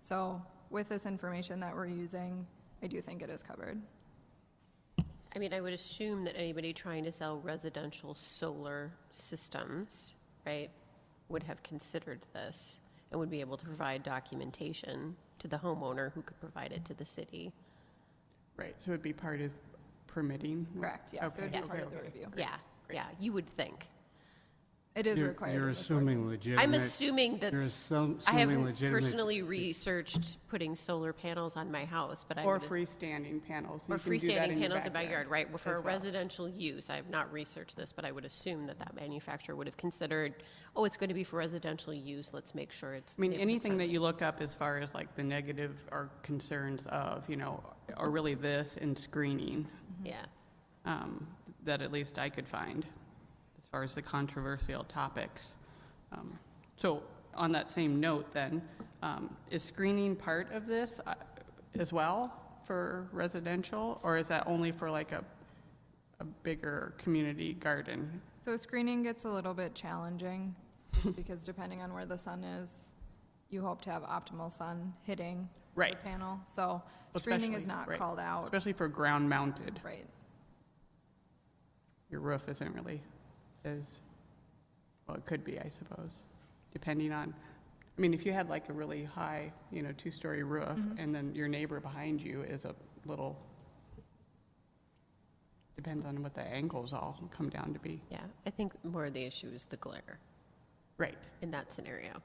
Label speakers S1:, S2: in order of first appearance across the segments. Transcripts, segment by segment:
S1: So with this information that we're using, I do think it is covered.
S2: I mean, I would assume that anybody trying to sell residential solar systems, right, would have considered this and would be able to provide documentation to the homeowner who could provide it to the city.
S3: Right, so it'd be part of permitting?
S1: Correct, yeah, so it would
S3: Okay,
S1: be part
S3: okay,
S1: of the
S3: okay.
S1: review.
S2: Yeah, yeah, you would think.
S1: It is
S4: You're-
S1: required.
S4: You're
S1: in this
S4: assuming
S1: ordinance.
S4: legitimate.
S2: I'm assuming that,
S4: You're assum-
S2: I
S4: assuming
S2: haven't
S4: legitimate.
S2: personally researched putting solar panels on my house, but I
S3: Or
S2: would.
S3: freestanding panels. you
S2: Or
S3: can do that
S2: freestanding
S3: your
S2: panels in backyard, right, for
S3: as
S2: a
S3: well.
S2: residential use, I have not researched this, but I would assume that that manufacturer would have considered, oh, it's going to be for residential use, let's make sure it's.
S3: I mean,
S2: neighborhood
S3: anything that
S2: friendly.
S3: you look up as far as like the negative or concerns of, you know, are really this and screening,
S2: Yeah,
S3: um, that at least I could find, as far as the controversial topics. Um, So on that same note then, um, is screening part of this uh, as well for residential? Or is that only for like a, a bigger community garden?
S1: So screening gets a little bit challenging, just because depending on where the sun is, you hope to have optimal sun hitting the
S3: Right.
S1: panel. So screening is
S3: Especially-
S1: not
S3: right.
S1: called out,
S3: Especially for ground mounted,
S1: right?
S3: your roof isn't really as, well, it could be, I suppose, depending on, I mean, if you had like a really high, you know, two-story roof, and then your neighbor behind you is a little, depends on what the angles all come down to be.
S2: yeah, I think more of the issue is the glare
S3: Right.
S2: in that scenario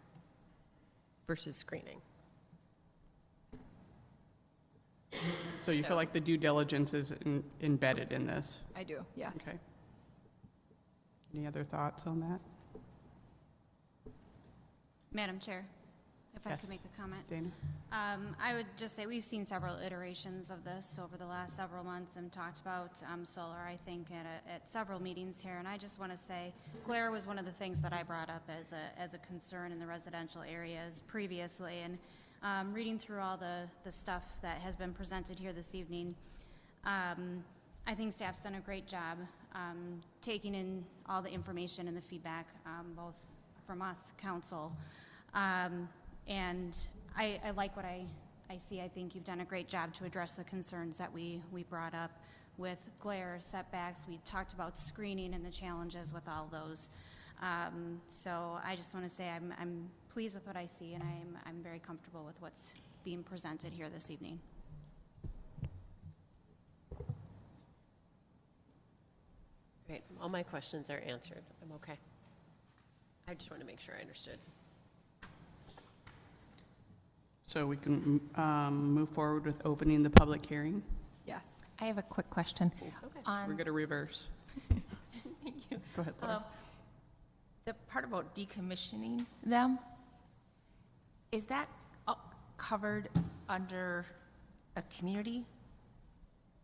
S2: versus screening.
S3: So you feel like the due diligence is en- embedded in this?
S1: I do, yes.
S3: Okay. Any other thoughts on that,
S5: Madam Chair, if I
S3: Yes.
S5: could make a comment.
S3: Dana?
S5: Um, I would just say, we've seen several iterations of this over the last several months and talked about um, solar, I think, at, a- at several meetings here. And I just want to say, glare was one of the things that I brought up as a, as a concern in the residential areas previously. And um, reading through all the, the stuff that has been presented here this evening, um, I think staff's done a great job um, taking in all the information and the feedback, um, both from us, council. Um, And I, I like what I, I see. I think you've done a great job to address the concerns that we, we brought up with glare setbacks. We talked about screening and the challenges with all those. Um, So I just want to say I'm, I'm pleased with what I see, and I'm, I'm very comfortable with what's being presented here this evening.
S2: Right, all my questions are answered, I'm okay. I just want to make sure I understood.
S3: So we can um, move forward with opening the public hearing?
S1: Yes.
S6: I have a quick question.
S2: Okay.
S3: We're
S6: On
S3: going to reverse.
S6: Thank you.
S3: Go ahead, Laura.
S6: Um, the part about decommissioning them, is that uh, covered under a community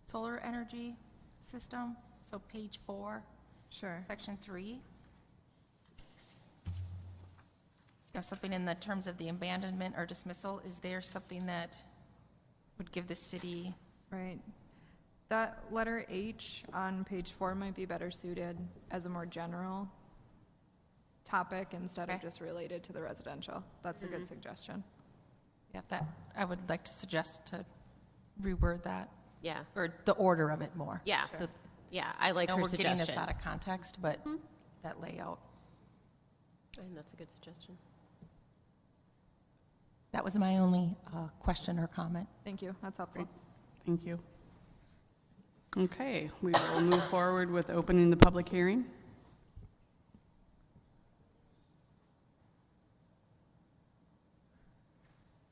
S6: solar energy system? So page four,
S1: Sure.
S6: section three? There's something in the terms of the abandonment or dismissal, is there something that would give the city?
S1: Right. That letter H on page four might be better suited as a more general topic instead of
S6: Okay.
S1: just related to the residential. That's a good suggestion.
S6: Yeah, that, I would like to suggest to reword that,
S2: Yeah,
S6: or the order of it more.
S2: yeah,
S6: The-
S2: yeah, I like
S6: I know
S2: her
S6: we're getting this out
S2: suggestion.
S6: of context, but that layout,
S2: And that's a good suggestion.
S6: that was my only uh, question or comment.
S1: Thank you, that's helpful.
S3: Great. Thank you. Okay, we will move forward with opening the public hearing.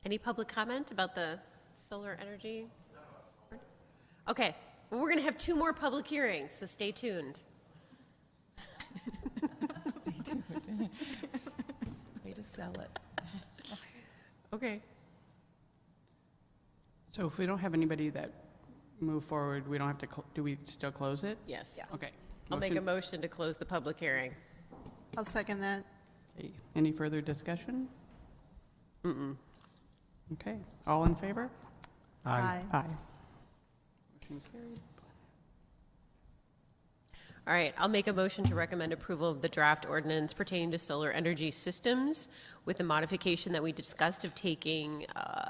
S2: Any public comment about the solar energy? Okay, well, we're going to have two more public hearings, so stay tuned.
S6: Way to sell it.
S2: Okay.
S3: So if we don't have anybody that move forward, we don't have to, cl- do we still close it?
S2: Yes.
S3: Okay.
S2: I'll make a
S3: Motion-
S2: motion to close the public hearing.
S7: I'll second that.
S3: Okay, Any further discussion? Mm-mm. Okay, all in favor?
S4: Aye.
S3: Aye. Motion carried.
S2: All right, I'll make a motion to recommend approval of the draft ordinance pertaining to solar energy systems with the modification that we discussed of taking uh,